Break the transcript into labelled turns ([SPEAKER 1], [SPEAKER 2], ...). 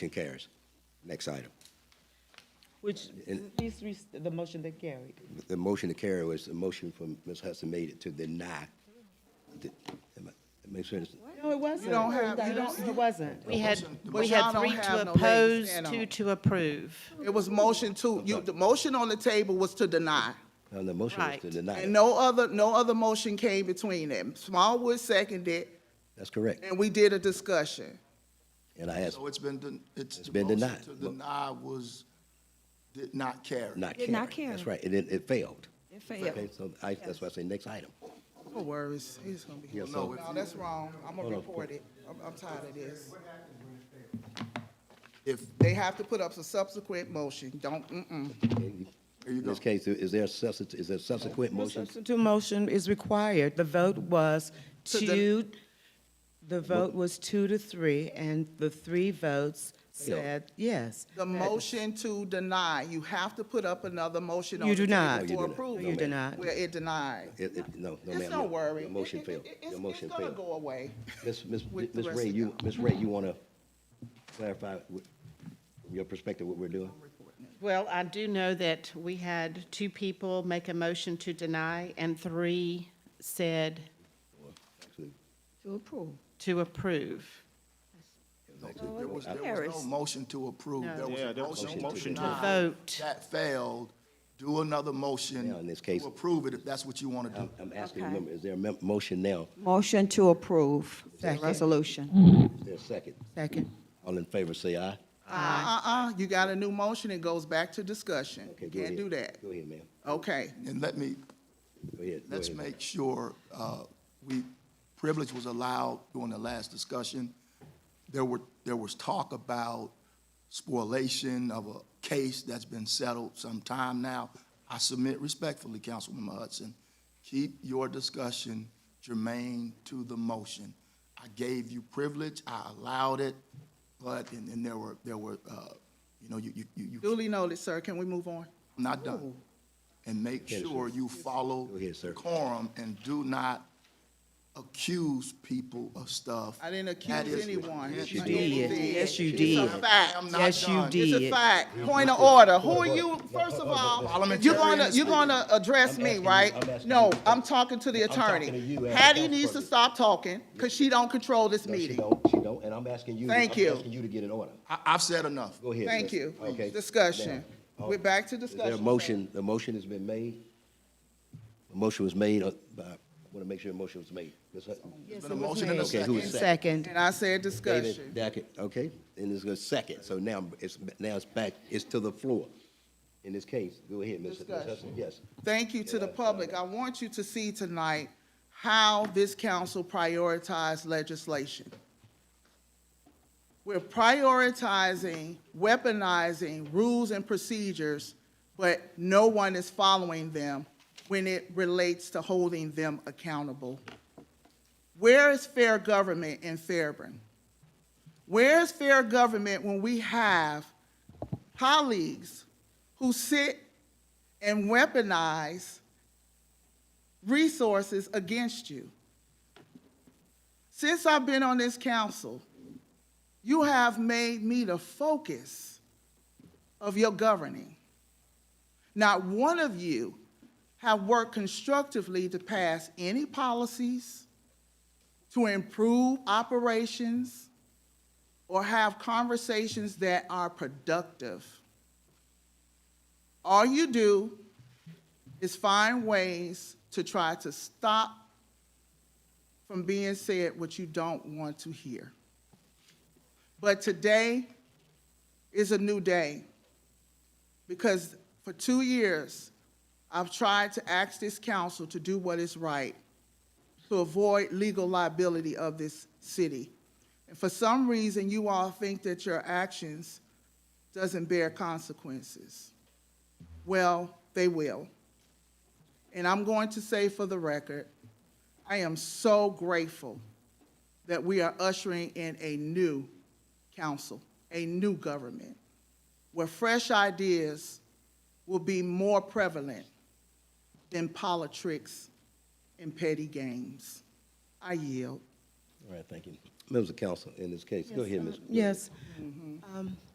[SPEAKER 1] Motion carries. Next item.
[SPEAKER 2] Which,
[SPEAKER 1] And-
[SPEAKER 2] these three, the motion that carried.
[SPEAKER 1] The motion to carry was the motion from Ms. Hudson made it to deny. Did- am I- Make sure, it's-
[SPEAKER 2] No, it wasn't.
[SPEAKER 3] You don't have- you don't-
[SPEAKER 2] It wasn't.
[SPEAKER 4] We had,
[SPEAKER 3] The
[SPEAKER 4] we
[SPEAKER 3] motion-
[SPEAKER 4] had
[SPEAKER 3] Y'all don't
[SPEAKER 4] three to
[SPEAKER 3] have no leg to
[SPEAKER 4] oppose,
[SPEAKER 3] stand
[SPEAKER 4] two
[SPEAKER 3] on.
[SPEAKER 4] to approve.
[SPEAKER 3] It was motion to, you, the motion on the table was to deny.
[SPEAKER 1] no, the motion was to
[SPEAKER 4] Right.
[SPEAKER 3] And
[SPEAKER 1] deny.
[SPEAKER 3] no other, no other motion came between them. Smallwood seconded,
[SPEAKER 1] That's correct.
[SPEAKER 3] and we did a discussion.
[SPEAKER 1] And I asked,
[SPEAKER 5] So it's been, den- it's.
[SPEAKER 1] It's
[SPEAKER 5] the
[SPEAKER 1] been
[SPEAKER 5] motion
[SPEAKER 1] denied.
[SPEAKER 5] To deny was, did not carry.
[SPEAKER 1] not
[SPEAKER 6] Did
[SPEAKER 1] carry.
[SPEAKER 6] not
[SPEAKER 1] That's
[SPEAKER 6] carry.
[SPEAKER 1] right, and it, it failed.
[SPEAKER 6] It failed.
[SPEAKER 1] Okay, so I, that's why I say next item.
[SPEAKER 3] No worries, it's gonna be.
[SPEAKER 1] Yes, sir.
[SPEAKER 3] No, that's wrong. I'm gonna report it. I'm, I'm tired of this.
[SPEAKER 5] If,
[SPEAKER 3] They have to put up a subsequent motion. Don't, mm-mm.
[SPEAKER 5] there you
[SPEAKER 1] In
[SPEAKER 5] go.
[SPEAKER 1] this case, is there a substitute, is there subsequent
[SPEAKER 2] No
[SPEAKER 1] motion?
[SPEAKER 2] substitute motion is required. The vote was
[SPEAKER 3] To the-
[SPEAKER 2] two, the vote was two to three, and the three votes said yes.
[SPEAKER 3] The motion to deny, you have to put up another motion on
[SPEAKER 2] You
[SPEAKER 3] the
[SPEAKER 2] do not. No,
[SPEAKER 3] table
[SPEAKER 1] do
[SPEAKER 2] you
[SPEAKER 3] for
[SPEAKER 1] not. No,
[SPEAKER 3] approval.
[SPEAKER 2] You do not.
[SPEAKER 3] Where it denied.
[SPEAKER 1] It, it, no, no, ma'am.
[SPEAKER 3] It's no worry.
[SPEAKER 1] Your
[SPEAKER 3] It-
[SPEAKER 1] motion
[SPEAKER 3] it-
[SPEAKER 1] failed.
[SPEAKER 3] it-
[SPEAKER 1] Your
[SPEAKER 3] it's-
[SPEAKER 1] motion
[SPEAKER 3] It's gonna
[SPEAKER 1] failed.
[SPEAKER 3] go away.
[SPEAKER 1] Miss, Miss,
[SPEAKER 3] with the
[SPEAKER 1] Miss
[SPEAKER 3] rest
[SPEAKER 1] Ray,
[SPEAKER 3] of
[SPEAKER 1] you, Miss Ray, you want to clarify what- from your perspective what we're doing?
[SPEAKER 4] Well, I do know that we had two people make a motion to deny, and three said
[SPEAKER 1] Actually,
[SPEAKER 6] To approve.
[SPEAKER 4] to approve.
[SPEAKER 5] There was, there was
[SPEAKER 6] Harris.
[SPEAKER 5] no motion to approve.
[SPEAKER 4] No.
[SPEAKER 5] There was
[SPEAKER 7] Yeah,
[SPEAKER 5] a
[SPEAKER 7] there was no
[SPEAKER 5] motion to
[SPEAKER 7] motion to
[SPEAKER 5] deny.
[SPEAKER 4] vote.
[SPEAKER 5] That failed. Do another
[SPEAKER 1] Now, in
[SPEAKER 5] motion
[SPEAKER 1] this case-
[SPEAKER 5] to approve it if that's what you want to do.
[SPEAKER 1] I'm, I'm asking,
[SPEAKER 6] Okay.
[SPEAKER 1] remember, is there a mem- motion now?
[SPEAKER 6] Motion to approve the
[SPEAKER 2] Second.
[SPEAKER 6] resolution.
[SPEAKER 1] Is there a second?
[SPEAKER 2] Second.
[SPEAKER 1] All in favor, say aye.
[SPEAKER 3] Uh-uh, you got a new motion, it goes back to discussion.
[SPEAKER 1] Okay, go
[SPEAKER 3] Can't
[SPEAKER 1] ahead.
[SPEAKER 3] do that.
[SPEAKER 1] Go ahead, ma'am.
[SPEAKER 3] Okay,
[SPEAKER 5] And let me,
[SPEAKER 1] Go ahead. go
[SPEAKER 5] let's
[SPEAKER 1] ahead.
[SPEAKER 5] make sure, uh, we, privilege was allowed during the last discussion. There were, there was talk about spoliation of a case that's been settled some time now. I submit respectfully, Councilwoman Hudson, keep your discussion germane to the motion. I gave you privilege, I allowed it, but, and, and there were, there were, uh, you know, you, you, you. you-
[SPEAKER 3] duly noted, sir. Can we move on?
[SPEAKER 5] I'm not
[SPEAKER 2] Oh.
[SPEAKER 5] done. And make
[SPEAKER 1] ahead, sir.
[SPEAKER 5] sure you follow
[SPEAKER 1] Go ahead, sir.
[SPEAKER 5] quorum and do not accuse people of stuff.
[SPEAKER 3] I didn't
[SPEAKER 5] That
[SPEAKER 3] accuse
[SPEAKER 5] is-
[SPEAKER 3] anyone.
[SPEAKER 5] Yes, you
[SPEAKER 3] I
[SPEAKER 5] did.
[SPEAKER 3] did.
[SPEAKER 2] Yes, you
[SPEAKER 5] It's
[SPEAKER 2] did.
[SPEAKER 5] a fact. I'm not
[SPEAKER 2] Yes, you
[SPEAKER 5] done.
[SPEAKER 2] did.
[SPEAKER 3] It's a fact. Point of order. Who are you, first of all, you're gonna, you're gonna address
[SPEAKER 1] I'm
[SPEAKER 3] me,
[SPEAKER 1] asking you-
[SPEAKER 3] right?
[SPEAKER 1] I'm asking
[SPEAKER 3] No,
[SPEAKER 1] you.
[SPEAKER 3] I'm talking to the
[SPEAKER 1] I'm talking to
[SPEAKER 3] attorney.
[SPEAKER 1] you as a
[SPEAKER 3] Hattie needs to
[SPEAKER 1] councilperson.
[SPEAKER 3] stop talking, because she don't control this
[SPEAKER 1] No, she
[SPEAKER 3] meeting.
[SPEAKER 1] don't, she don't, and I'm asking you.
[SPEAKER 3] Thank
[SPEAKER 1] I'm
[SPEAKER 3] you.
[SPEAKER 1] asking you to get in order.
[SPEAKER 5] I, I've said enough.
[SPEAKER 1] Go ahead.
[SPEAKER 3] Thank
[SPEAKER 1] sir.
[SPEAKER 3] you.
[SPEAKER 1] Okay.
[SPEAKER 3] Discussion.
[SPEAKER 1] Now,
[SPEAKER 3] We're back to
[SPEAKER 1] Is there a
[SPEAKER 3] discussion.
[SPEAKER 1] motion, the motion has been made? The motion was made, uh, by, I want to make sure the motion was made. Ms. Hudson?
[SPEAKER 5] It's been a motion and a
[SPEAKER 1] Okay, who is
[SPEAKER 5] second.
[SPEAKER 1] second?
[SPEAKER 2] Second.
[SPEAKER 3] And I
[SPEAKER 1] David
[SPEAKER 3] said discussion.
[SPEAKER 1] Dackett, okay, and it's a second, so now it's, now it's back, it's to the floor. In this case, go ahead, Ms. Ms.
[SPEAKER 3] Discussion.
[SPEAKER 1] Hudson, yes.
[SPEAKER 3] Thank you to the public. I want you to see tonight how this council prioritized legislation. We're prioritizing, weaponizing rules and procedures, but no one is following them when it relates to holding them accountable. Where is fair government in Fairburn? Where is fair government when we have colleagues who sit and weaponize resources against you? Since I've been on this council, you have made me the focus of your governing. Not one of you have worked constructively to pass any policies, to improve operations, or have conversations that are productive. All you do is find ways to try to stop from being said what you don't want to hear. But today is a new day because for two years, I've tried to ask this council to do what is right to avoid legal liability of this city. And for some reason, you all think that your actions doesn't bear consequences. Well, they will. And I'm going to say for the record, I am so grateful that we are ushering in a new council, a new government, where fresh ideas will be more prevalent than politics and petty games. I yield.
[SPEAKER 1] All right, thank you. members of council in this case. Go ahead, Ms.
[SPEAKER 2] Yes. Um,